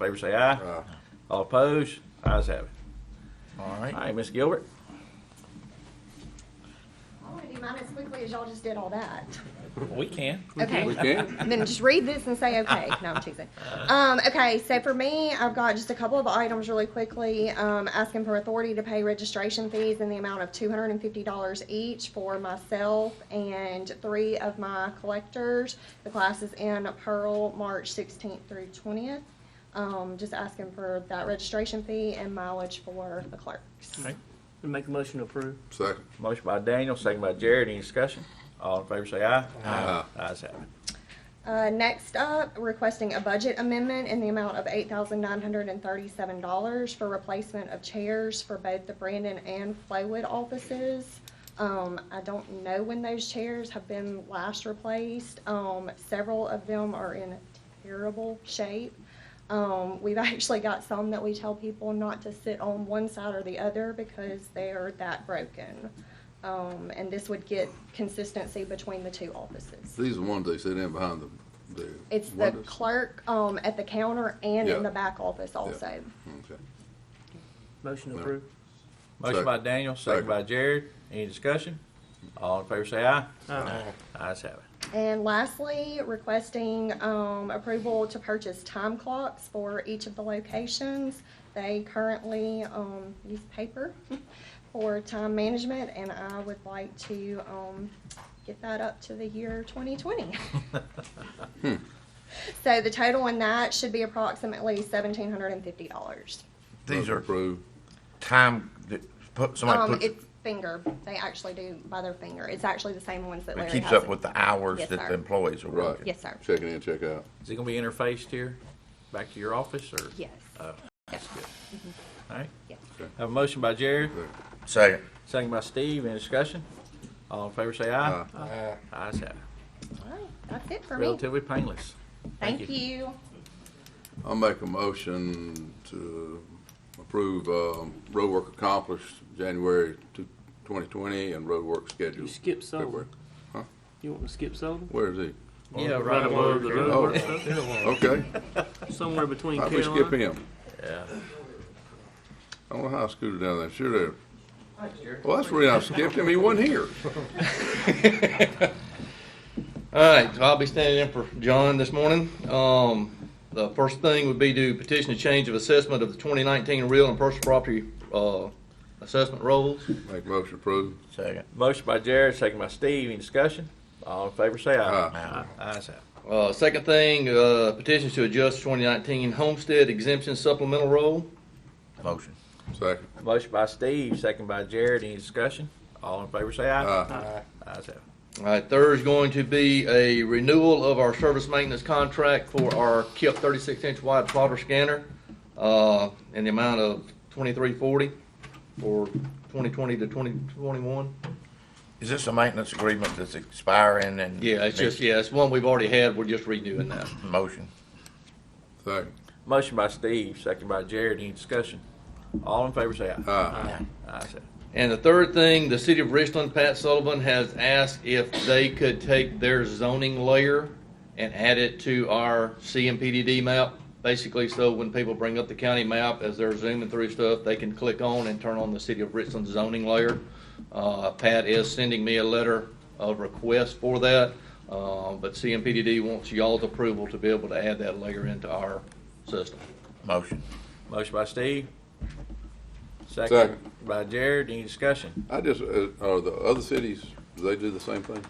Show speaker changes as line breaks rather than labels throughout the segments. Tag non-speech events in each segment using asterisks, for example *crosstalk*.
Favor say aye.
Aye.
All opposed? Ayes have it.
All
All
right.
right, Ms. Gilbert.
I want to do mine as quickly as y'all just did all that.
Uh, We can.
Okay.
Okay.
Then just read this and say, okay. No, I'm teasing. Um, okay, so for me, I've got just a couple of items really quickly. Um, asking for authority to pay registration fees in the amount of two hundred and fifty dollars each for myself and three of my collectors. The class is in Pearl, March sixteenth through twentieth. Um, just asking for that registration fee and mileage for the clerks.
Make a motion to approve.
Second.
Motion by Daniel, second by Jared. Any discussion? All in favor say aye.
Aye.
Ayes have it.
Uh, next up, requesting a budget amendment in the amount of eight thousand nine hundred and thirty-seven dollars for replacement of chairs for both the Brandon and Flowood offices. Um, I don't know when those chairs have been last replaced. Um, several of them are in terrible shape. Um, we've *laughs* actually got some that we tell people not to sit on one side or the other because they're that broken. Um, and this would get consistency between the two offices.
These are the ones they sit in behind the, the
It's the
windows.
clerk, um, at the counter and
Yeah.
in the back office also.
Okay.
Motion to
No.
approve.
Motion
Second.
by Daniel, second
Second.
by Jared. Any discussion? All in favor say aye.
Aye.
Ayes have it.
And lastly, requesting, um, approval to purchase time clocks for each of the locations. They currently, um, use paper *laughs* for time management and I would like to, um, get that up to the year twenty twenty. *laughs*
Hmm.
So the total on that should be approximately seventeen hundred and fifty dollars.
These
Motion
are
approved.
time that put, somebody
Um,
puts,
it's finger. They actually do by their finger. It's actually the same ones that Larry
it keeps
has
up
it.
with the hours
Yes,
that the
sir.
employees are
Right.
working.
Yes, sir.
Check it in, check out.
Is it gonna be interfaced here, back to your office, or?
Yes.
uh,
Oh, that's good. All right.
Yes.
Have a motion by Jared,
Second.
Second.
second by Steve. Any discussion? All in favor say aye.
Aye.
Ayes have it.
All right. That's it for me.
Relatively painless.
Thank you.
I'll make a motion to approve, um, road work accomplished January two- 2020 and road work
You
scheduled
skip Sullivan.
February.
You want to skip Sullivan?
Where is
*laughs*
he?
Yeah,
Right
right.
above the road
Oh.
work stuff?
Okay.
Somewhere between
Why'd we skip
Carolina.
him?
Yeah.
I don't know how I scooted down there. Sure did. Well, that's the reason I skipped him. He wasn't here.
All right, so I'll be standing in for John this morning. Um, the first thing would be to petition a change of assessment of the 2019 real and personal property, uh, assessment rolls.
Make a motion approved.
Second.
Motion by Jared, second by Steve. Any discussion? All in favor say aye. Aye. Ayes have it.
Uh, second thing, uh, petitions to adjust 2019 homestead exemption supplemental roll. Uh,
Motion.
Second.
Motion by Steve, second by Jared. Any discussion? All in favor say aye.
Aye.
Ayes have it.
All right, third is going to be a renewal of our service maintenance contract for our KIP 36-inch wide plotter scanner uh, in the amount of 2340 for 2020 to 2021.
Is this a maintenance agreement that's expiring and?
Yeah, it's just, yeah, it's one we've already had, we're just redoing that.
Motion.
Second.
Motion by Steve, second by Jared. Any discussion? All in favor say aye.
Aye.
Ayes have it.
And the third thing, the city of Richland, Pat Sullivan has asked if they could take their zoning layer and add it to our CMPDD map, basically so when people bring up the county map as they're zooming through stuff, they can click on and turn on the city of Richland zoning layer. Uh, Pat is sending me a letter of request for that, uh, but CMPDD wants y'all's approval to be able to add that layer into our system.
Motion.
Motion by Steve. Second
Second.
by Jared. Any discussion?
I just, uh, are the other cities, do they do the same thing?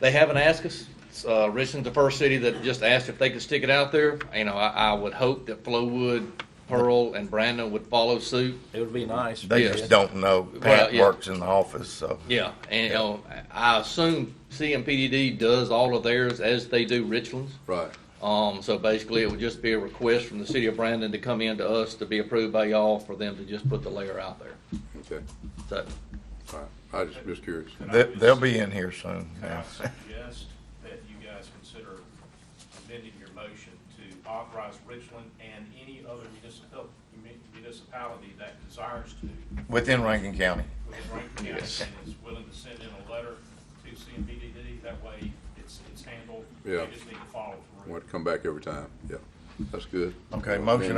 They haven't asked us. Uh, Richmond's the first city that just asked if they could stick it out there. You know, I, I would hope that Flowood, Pearl, and Brandon would follow suit.
It would be nice.
They
Yes.
just don't know.
Well,
Pat
yeah.
works in the office, so.
Yeah, and you know, I assume CMPDD does all of theirs as they do Richland's.
Right.
Um, so basically, it would just be a request from the city of Brandon to come in to us to be approved by y'all for them to just put the layer out there.
Okay.
So,
All right. I just, just curious.
They, they'll be in here soon.
Can I suggest that you guys consider amending your motion to authorize Richland and any other municipal, municipality that desires to,
*laughs* Within Rankin County.
within Rankin County, and is willing to send in a letter to CMPDD, that way it's, it's handled.
Yeah.
They just need to follow through.
Want to come back every time. Yeah. That's good.
Okay, motion